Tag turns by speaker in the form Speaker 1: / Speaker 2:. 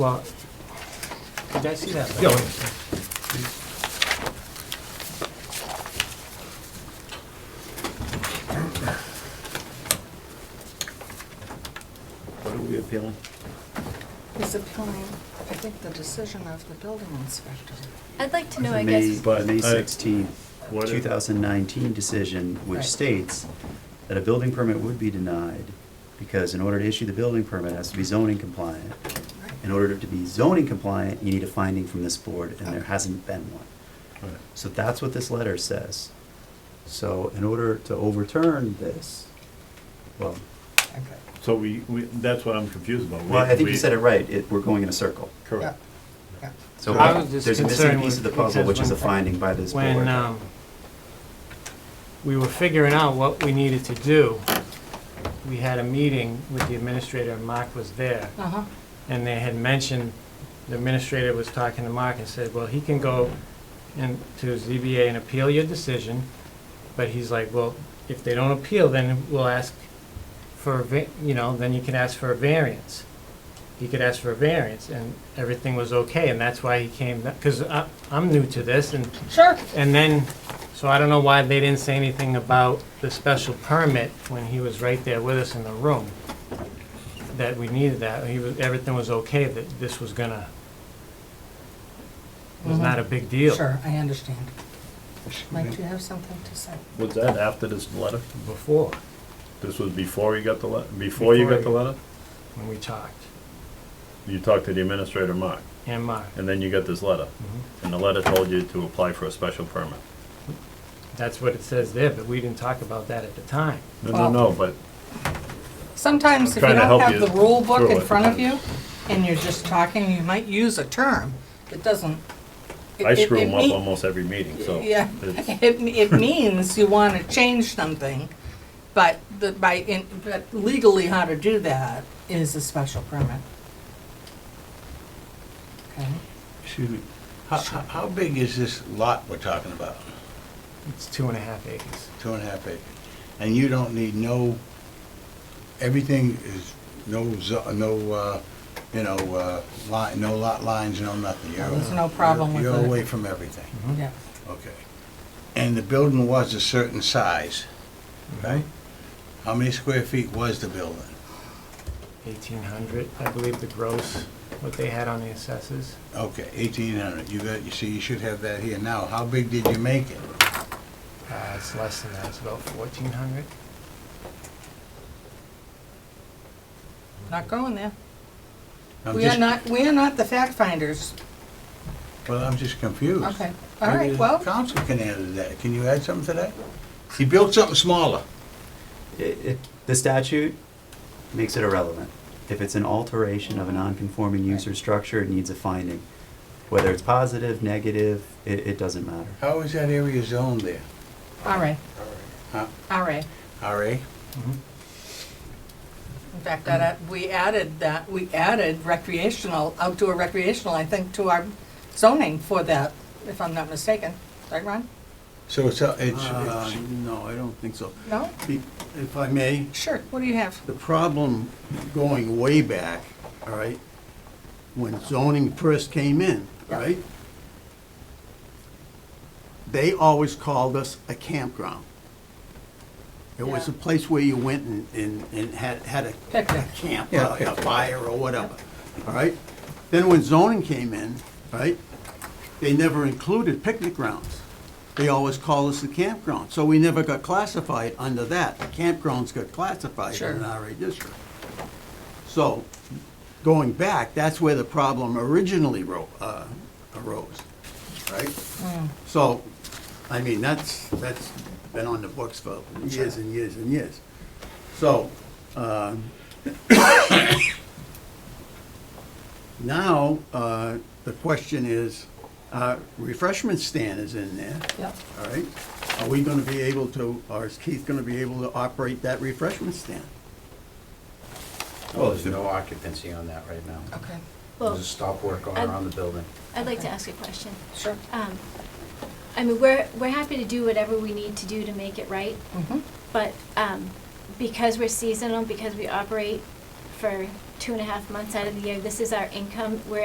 Speaker 1: Well, did I see that?
Speaker 2: Yeah, wait.
Speaker 3: What are we appealing?
Speaker 4: He's appealing, I think, the decision of the building inspector.
Speaker 5: I'd like to know, I
Speaker 3: May-
Speaker 5: guess,
Speaker 3: May
Speaker 2: I-
Speaker 3: 16th,
Speaker 2: What if-
Speaker 3: 2019 decision, which
Speaker 4: Right.
Speaker 3: states that a building permit would be denied because in order to issue the building permit, it has to be zoning compliant.
Speaker 4: Right.
Speaker 3: In order to be zoning compliant, you need a finding from this board, and there hasn't been one.
Speaker 2: Right.
Speaker 3: So that's what this letter says. So in order to overturn this, well,
Speaker 4: Okay.
Speaker 2: So we, we, that's what I'm confused about. We-
Speaker 3: well, I think you
Speaker 2: we-
Speaker 3: said it right, it, we're going in a circle.
Speaker 4: Yeah,
Speaker 2: Correct.
Speaker 4: yeah.
Speaker 3: So
Speaker 1: I was just
Speaker 3: there's a missing
Speaker 1: concerned
Speaker 3: piece
Speaker 1: with-
Speaker 3: of the puzzle,
Speaker 1: because
Speaker 3: which is a
Speaker 1: when-
Speaker 3: finding by this board.
Speaker 1: When, um, we were figuring out what we needed to do, we had a meeting with the administrator, and Mark was there.
Speaker 4: Uh-huh.
Speaker 1: And they had mentioned, the administrator was talking to Mark and said, well, he can go in to ZBA and appeal your decision. But he's like, well, if they don't appeal, then we'll ask for, a va- you know, then you can ask for a variance. He could ask for a variance and everything was okay. And that's why he came, because I'm new to this and
Speaker 4: Sure.
Speaker 1: and then, so I don't know why they didn't say anything about the special permit when he was right there with us in the room, that we needed that, he was, everything was okay, that this was gonna, was not a big deal.
Speaker 4: Sure, I understand. Mike, do you have something to say?
Speaker 2: Was that after this letter?
Speaker 1: Before,
Speaker 2: This was before you got the letter, before you got the
Speaker 1: Before
Speaker 2: letter?
Speaker 1: when we talked,
Speaker 2: You talked to the administrator, Mark,
Speaker 1: and uh, Mark,
Speaker 2: and then you got this letter.
Speaker 3: Mm-hmm.
Speaker 2: And the letter told you to apply for a special permit.
Speaker 1: that's what it says there, but we didn't talk about that at the time.
Speaker 2: No, no, no, but
Speaker 4: Sometimes if you
Speaker 2: Trying to
Speaker 4: don't
Speaker 2: help
Speaker 4: have
Speaker 2: you
Speaker 4: the rule book
Speaker 2: through
Speaker 4: in
Speaker 2: it.
Speaker 4: front of you and you're just talking, you might use a term that doesn't. it-
Speaker 2: I
Speaker 4: it-
Speaker 2: screw
Speaker 4: it
Speaker 2: them up
Speaker 4: mean-
Speaker 2: almost every meeting, so.
Speaker 4: Yeah,
Speaker 2: it's-
Speaker 4: it, it means you want to change something, but the, by, in- but legally how to do that is a special permit. Okay,
Speaker 6: Excuse me, how, how how big is this lot we're talking about?
Speaker 1: It's two and a half acres.
Speaker 6: Two and a half acres? And you don't need no, everything is, no, zo- no, uh, you know, uh, line, no lot lines, no nothing. You're-
Speaker 4: There's no problem with
Speaker 6: You're
Speaker 4: it. Mm-hmm.
Speaker 6: away from everything,
Speaker 1: Hmm.
Speaker 4: yeah.
Speaker 6: okay. And the building was a certain size,
Speaker 4: Mm-hmm.
Speaker 6: right? How many square feet was the building?
Speaker 1: Eighteen hundred, I believe the gross, what they had on the assessors.
Speaker 6: Okay, eighteen hundred, you got, you see, you should have that here now. How big did you make it?
Speaker 1: Uh, it's less than that, it's about fourteen hundred.
Speaker 4: Not going there.
Speaker 6: I'm
Speaker 4: We are
Speaker 6: just-
Speaker 4: not, we are not the fact finders.
Speaker 6: Well, I'm just confused.
Speaker 4: Okay, all
Speaker 6: Maybe
Speaker 4: right,
Speaker 6: the
Speaker 4: well,
Speaker 6: Council can answer that. Can you add something to that? He built something smaller.
Speaker 3: It, it, the statute makes it irrelevant. If it's an alteration of a non-conforming use or structure, it needs a finding. Whether it's positive, negative, it, it doesn't matter.
Speaker 6: How is that area zoned there?
Speaker 4: all right,
Speaker 6: Huh?
Speaker 4: all right.
Speaker 6: RA?
Speaker 4: In fact, that, uh, we added that, we added recreational, outdoor recreational, I think, to our zoning for that, if I'm not mistaken. Right, Ron?
Speaker 6: So it's, a- it's,
Speaker 7: Uh,
Speaker 6: it's-
Speaker 7: No, I don't think so.
Speaker 4: No?
Speaker 7: Be- If I may,
Speaker 4: Sure, what do you have?
Speaker 7: the problem going way back, all right, when zoning first came in, all right? They always called us a campground. It was a
Speaker 4: Yeah.
Speaker 7: place where you went and, and and had, had a
Speaker 4: Picnic.
Speaker 7: a camp,
Speaker 6: Yeah,
Speaker 7: a a
Speaker 6: picnic.
Speaker 7: fire or whatever, all right? Then when zoning came in, right, they never included picnic grounds. They always call us the campground, so we never got classified under that. Campgrounds got classified
Speaker 4: Sure.
Speaker 7: in an RA district. So, going back, that's where the problem originally ro- uh, arose, right? So, I mean, that's, that's been on the books for years and years and years. So, um, now, uh, the question is, uh, refreshment stand is in there,
Speaker 4: Yep.
Speaker 7: all right? Are we gonna be able to, or is Keith gonna be able to operate that refreshment stand?
Speaker 3: Well,
Speaker 8: There's no occupancy on that right now.
Speaker 4: Okay,
Speaker 8: There's
Speaker 5: well,
Speaker 8: a stop work order on the building.
Speaker 5: I'd like to ask a question.
Speaker 4: sure.
Speaker 5: Um, I mean, we're, we're happy to do whatever we need to do to make it right,
Speaker 4: Mhm.
Speaker 5: but um, because we're seasonal, because we operate for two and a half months out of the year, this is our income, we're